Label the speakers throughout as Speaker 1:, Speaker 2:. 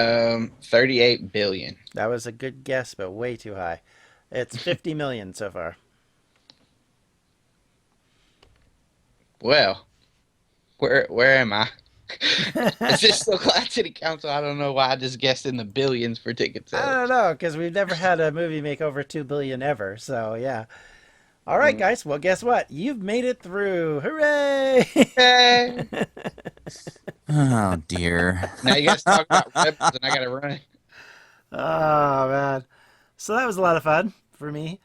Speaker 1: Um, 38 billion.
Speaker 2: That was a good guess, but way too high. It's 50 million so far.
Speaker 1: Well, where where am I? Is this still Glad City Council? I don't know why I just guessed in the billions for ticket
Speaker 2: I
Speaker 1: sales.
Speaker 2: don't know, because we've never had a movie make over 2 billion ever. So, yeah. All right,
Speaker 1: Mm.
Speaker 2: guys. Well, guess what? You've made it through. Hooray!
Speaker 1: Hey.
Speaker 3: Oh dear.
Speaker 1: now you guys talk about rebels, and I gotta run.
Speaker 2: oh, man. So that was a lot of fun for me.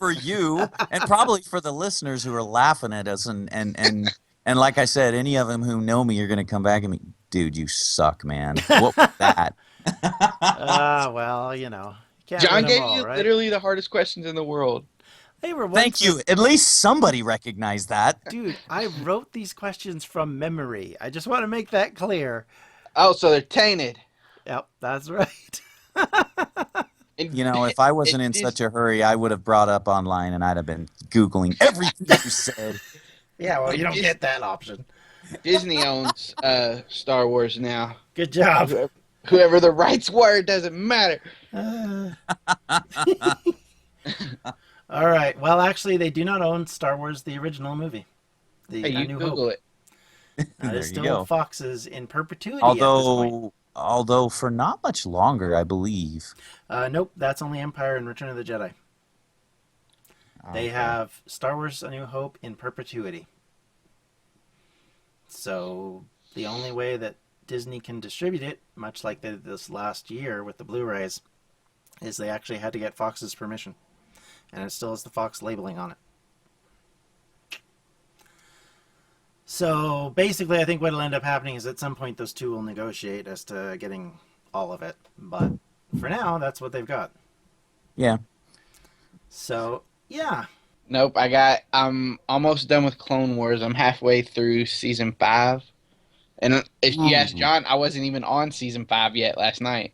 Speaker 3: for you and probably for the listeners who are laughing at us and and and and like I said, any of them who know me are going to come back and me, dude, you suck, man. What was that?
Speaker 2: Ah, well, you know. Can't
Speaker 1: John
Speaker 2: win 'em
Speaker 1: gave
Speaker 2: all,
Speaker 1: you
Speaker 2: right?
Speaker 1: literally the hardest questions in the world.
Speaker 2: They were once
Speaker 3: Thank you. At least somebody recognized that.
Speaker 2: Dude, I wrote these questions from memory. I just want to make that clear.
Speaker 1: Oh, so they're tainted.
Speaker 2: Yep, that's right.
Speaker 1: And
Speaker 3: You know, if I wasn't in such a hurry, I would have brought up online and I'd have been googling everything you said.
Speaker 2: Yeah, well,
Speaker 1: you don't get
Speaker 2: that option.
Speaker 1: Disney owns uh, Star Wars now.
Speaker 2: Good job.
Speaker 1: Whoever the rights were it doesn't matter.
Speaker 2: Uh. All right. Well, actually, they do not own Star Wars, the original movie. The
Speaker 1: Hey,
Speaker 2: A
Speaker 1: you
Speaker 2: New
Speaker 1: Google
Speaker 2: Hope.
Speaker 1: it.
Speaker 2: That
Speaker 3: There
Speaker 2: is
Speaker 3: you
Speaker 2: still
Speaker 3: go.
Speaker 2: Fox's in perpetuity. at this point.
Speaker 3: Although although for not much longer, I believe.
Speaker 2: uh, nope, that's only Empire and Return of the Jedi. They
Speaker 3: Okay.
Speaker 2: have Star Wars: A New Hope in perpetuity. So the only way that Disney can distribute it, much like they did this last year with the Blu-rays, is they actually had to get Fox's permission, and it still has the Fox labeling on it. So basically, I think what'll end up happening is at some point those two will negotiate as to getting all of it. But for now, that's what they've got.
Speaker 3: Yeah.
Speaker 2: So yeah,
Speaker 1: Nope, I got. I'm almost done with Clone Wars. I'm halfway through season five, and if you ask
Speaker 3: Mhm.
Speaker 1: John, I wasn't even on season five yet last night.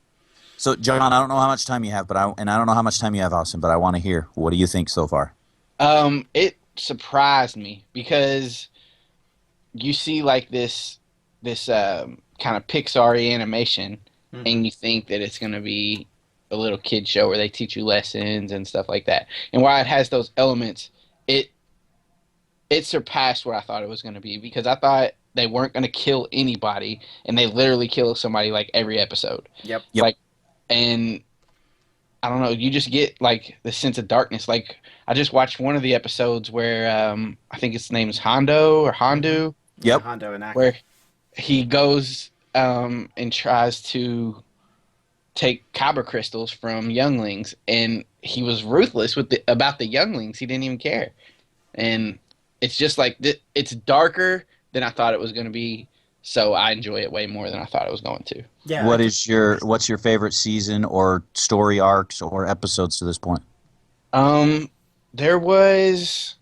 Speaker 3: So John, I don't know how much time you have, but I and I don't know how much time you have, Austin, but I want to hear. What do you think so far?
Speaker 1: Um, it surprised me because you see like this this um, kind of Pixar animation,
Speaker 2: Mhm.
Speaker 1: and you think that it's gonna be a little kid show where they teach you lessons and stuff like that. And while it has those elements, it it surpassed what I thought it was gonna be because I thought they weren't gonna kill anybody, and they literally kill somebody like every episode
Speaker 2: yep.
Speaker 1: and I don't know, you just get like the sense of darkness. Like I just watched one of the episodes where um, I think his name is Hondo or Hondu,
Speaker 3: Yep.
Speaker 2: Hondo and Ack.
Speaker 1: where he goes um, and tries to take kyber crystals from younglings, and he was ruthless with the, about the younglings. He didn't even care, and it's just like th- it's darker than I thought it was going to be. So I enjoy it way more than I thought it was going to.
Speaker 2: Yeah.
Speaker 3: What is your what's your favorite season or story arcs or episodes to this point?
Speaker 1: Um, there was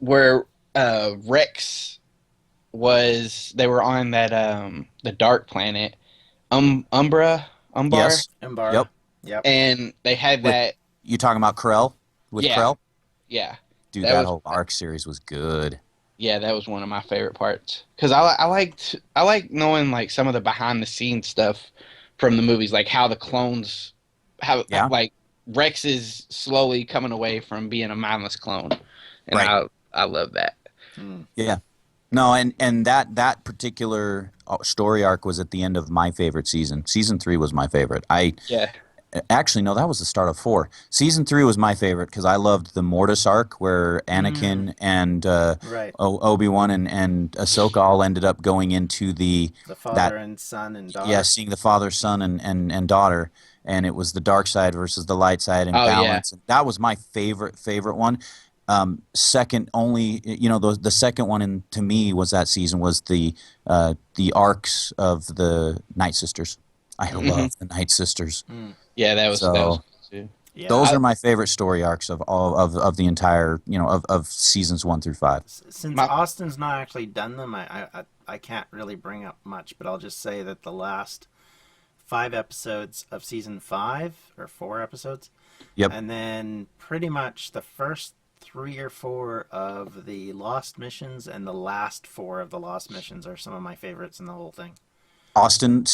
Speaker 1: where uh, Rex was. They were on that um the dark planet, um Umbra Umbar,
Speaker 3: Yes,
Speaker 2: Embark.
Speaker 3: Yep.
Speaker 2: Yep.
Speaker 1: and they had
Speaker 3: With-
Speaker 1: that.
Speaker 3: you talking about Krell with
Speaker 1: Yeah.
Speaker 3: Krell?
Speaker 1: Yeah,
Speaker 3: Dude,
Speaker 1: That
Speaker 3: that,
Speaker 1: was-
Speaker 3: whole arc series was good.
Speaker 1: yeah, that was one of my favorite parts because I li- I liked I like knowing like some of the behind the scenes stuff from the movies, like how the clones how
Speaker 3: Yeah.
Speaker 1: like Rex is slowly coming away from being a mindless clone, and
Speaker 3: Right.
Speaker 1: I I love that.
Speaker 2: Mm.
Speaker 3: No, and and that that particular uh, story arc was at the end of my favorite season. Season three was my favorite. I
Speaker 1: Yeah.
Speaker 3: actually no, that was the start of four. Season three was my favorite because I loved the Mortis arc where Anakin
Speaker 1: Mm.
Speaker 3: and uh,
Speaker 2: Right.
Speaker 3: o- Obi Wan and and Ahsoka all ended up going into the
Speaker 2: The father and son and daughter.
Speaker 3: yeah, seeing the father, son, and, and, and daughter, and it was the dark side versus the light side and
Speaker 1: Oh, yeah.
Speaker 3: balance. That was my favorite favorite one. Um, second only, you know, the the second one in, to me was that season was the uh, the arcs of the Night Sisters. I
Speaker 1: Mhm.
Speaker 3: love the Night Sisters.
Speaker 1: Yeah, that was that
Speaker 3: So-
Speaker 1: was good, too.
Speaker 2: Yeah.
Speaker 3: Those
Speaker 1: I-
Speaker 3: are my favorite story arcs of all of, of the entire, you know, of, of seasons one through five.
Speaker 2: S- Since
Speaker 1: my-
Speaker 2: Austin's not actually done them, I, I I- I can't really bring up much, but I'll just say that the last five episodes of season five or four episodes,
Speaker 3: Yep.
Speaker 2: and then pretty much the first three or four of the lost missions and the last four of the lost missions are some of my favorites in the whole thing.
Speaker 3: Austin